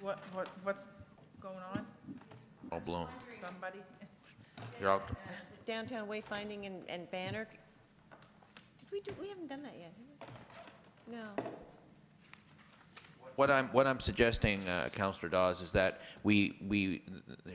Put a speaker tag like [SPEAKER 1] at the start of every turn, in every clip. [SPEAKER 1] What, what, what's going on?
[SPEAKER 2] All blown.
[SPEAKER 1] Somebody?
[SPEAKER 2] You're out.
[SPEAKER 3] Downtown wayfinding and, and banner, did we do, we haven't done that yet, have we? No.
[SPEAKER 2] What I'm, what I'm suggesting, uh, Counselor Dawes, is that we, we,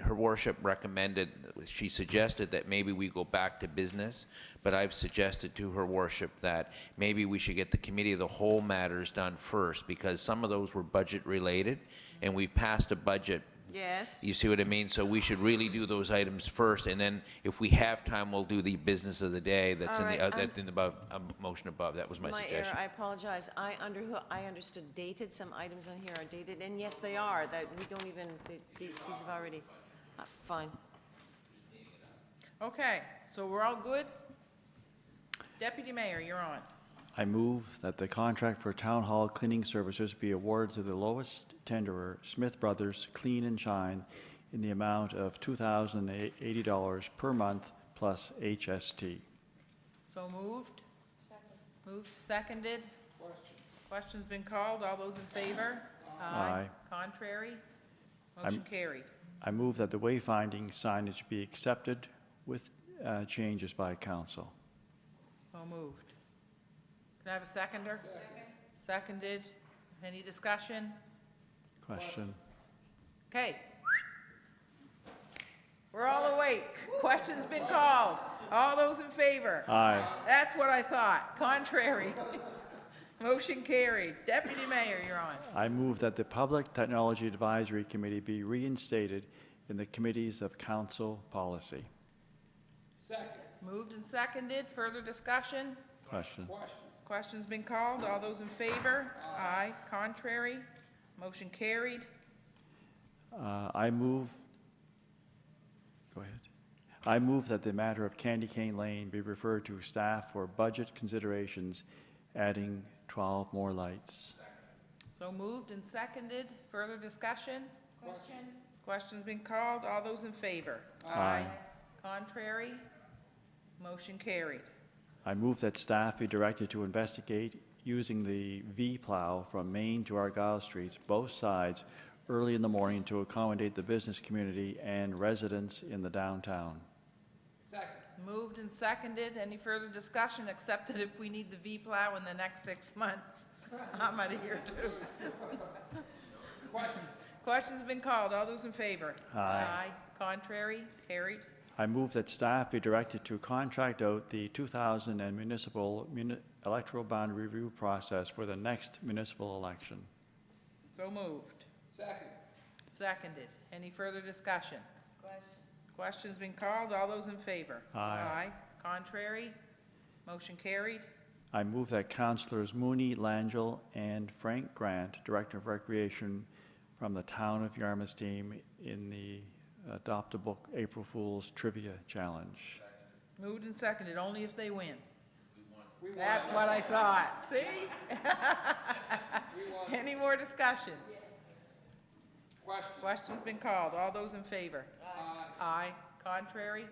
[SPEAKER 2] her worship recommended, she suggested that maybe we go back to business, but I've suggested to her worship that maybe we should get the committee of the whole matters done first, because some of those were budget-related, and we passed a budget
[SPEAKER 3] Yes.
[SPEAKER 2] You see what I mean? So we should really do those items first, and then if we have time, we'll do the business of the day that's in the,
[SPEAKER 3] All
[SPEAKER 2] uh,
[SPEAKER 3] right,
[SPEAKER 2] that's in the above, um, motion above. That was my
[SPEAKER 3] My error,
[SPEAKER 2] suggestion.
[SPEAKER 3] I apologize. I under, I understood dated, some items on here are dated, and yes, they are, that we don't even, they- these have already, uh, fine.
[SPEAKER 1] Okay, so we're all good? Deputy Mayor, you're on.
[SPEAKER 4] I move that the contract for town hall cleaning services be awarded to the lowest tenderer, Smith Brothers Clean and Shine, in the amount of $2,080 per month plus HST.
[SPEAKER 1] So moved? Moved, seconded? Question's been called, all those in favor?
[SPEAKER 4] Aye.
[SPEAKER 1] Contrary? Motion carried.
[SPEAKER 4] I move that the wayfinding signage be accepted with uh, changes by council.
[SPEAKER 1] So moved. Can I have a seconder? Seconded. Any discussion?
[SPEAKER 4] Question?
[SPEAKER 1] Okay. We're all awake. Question's been called. All those in favor?
[SPEAKER 4] Aye.
[SPEAKER 1] That's what I thought. Contrary. Motion carried. Deputy Mayor, you're on.
[SPEAKER 4] I move that the Public Technology Advisory Committee be reinstated in the committees of council policy.
[SPEAKER 1] Moved and seconded. Further discussion?
[SPEAKER 4] Question?
[SPEAKER 1] Question's been called. All those in favor? Aye. Contrary? Motion carried.
[SPEAKER 4] Uh, I move, go ahead. I move that the matter of Candy Cane Lane be referred to staff for budget considerations, adding 12 more lights.
[SPEAKER 1] So moved and seconded. Further discussion? Question. Question's been called. All those in favor?
[SPEAKER 4] Aye.
[SPEAKER 1] Contrary? Motion carried.
[SPEAKER 4] I move that staff be directed to investigate using the V-plow from Main to Argyle Streets, both sides, early in the morning to accommodate the business community and residents in the downtown.
[SPEAKER 1] Moved and seconded. Any further discussion, except that if we need the V-plow in the next six months, I'm out of here too. Question's been called. All those in favor?
[SPEAKER 4] Aye.
[SPEAKER 1] Contrary? Carried.
[SPEAKER 4] I move that staff be directed to contract out the 2000 and municipal muni- electoral bond review process for the next municipal election.
[SPEAKER 1] So moved. Second. Seconded. Any further discussion? Question. Question's been called. All those in favor?
[SPEAKER 4] Aye.
[SPEAKER 1] Contrary? Motion carried.
[SPEAKER 4] I move that Councilors Mooney, Langell, and Frank Grant, Director of Recreation from the Town of Yarmouth team in the adoptable April Fool's Trivia Challenge.
[SPEAKER 1] Moved and seconded, only if they win. That's what I thought, see? Any more discussion? Question's been called, all those in favor? Aye. Aye, contrary?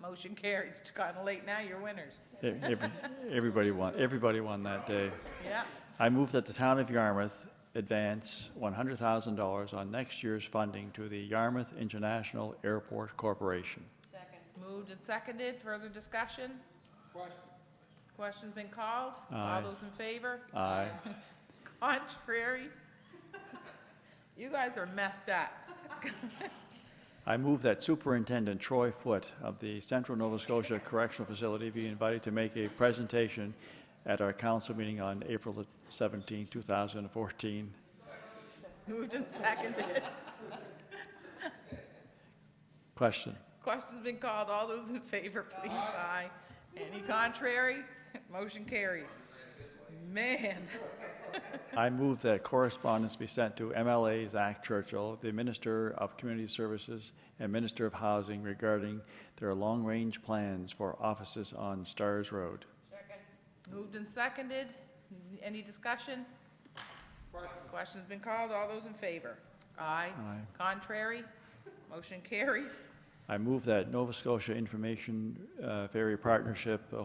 [SPEAKER 1] Motion carried, it's gotten late now, you're winners.
[SPEAKER 4] E- every- Everybody won, everybody won that day.
[SPEAKER 1] Yeah,
[SPEAKER 4] I move that the town of Yarmouth advance $100,000 on next year's funding to the Yarmouth International Airport Corporation.
[SPEAKER 1] moved and seconded, further discussion? Question. Question's been called, all
[SPEAKER 4] Aye.
[SPEAKER 1] those in favor?
[SPEAKER 4] Aye.
[SPEAKER 1] Contrary? You guys are messed up.
[SPEAKER 4] I move that Superintendent Troy Foote of the Central Nova Scotia Correctional Facility be invited to make a presentation at our council meeting on April the 17, 2014.
[SPEAKER 1] Moved and seconded.
[SPEAKER 4] Question.
[SPEAKER 1] Question's been called. All those in favor, please, aye. Any contrary? Motion carried. Man,
[SPEAKER 4] I move that correspondence be sent to MLA Zach Churchill, the Minister of Community Services and Minister of Housing regarding their long-range plans for offices on Stars Road.
[SPEAKER 1] moved and seconded. Any discussion? Question's been called. All those in favor? Aye.
[SPEAKER 4] Aye.
[SPEAKER 1] Contrary? Motion carried.
[SPEAKER 4] I move that Nova Scotia Information uh, Ferry Partnership uh,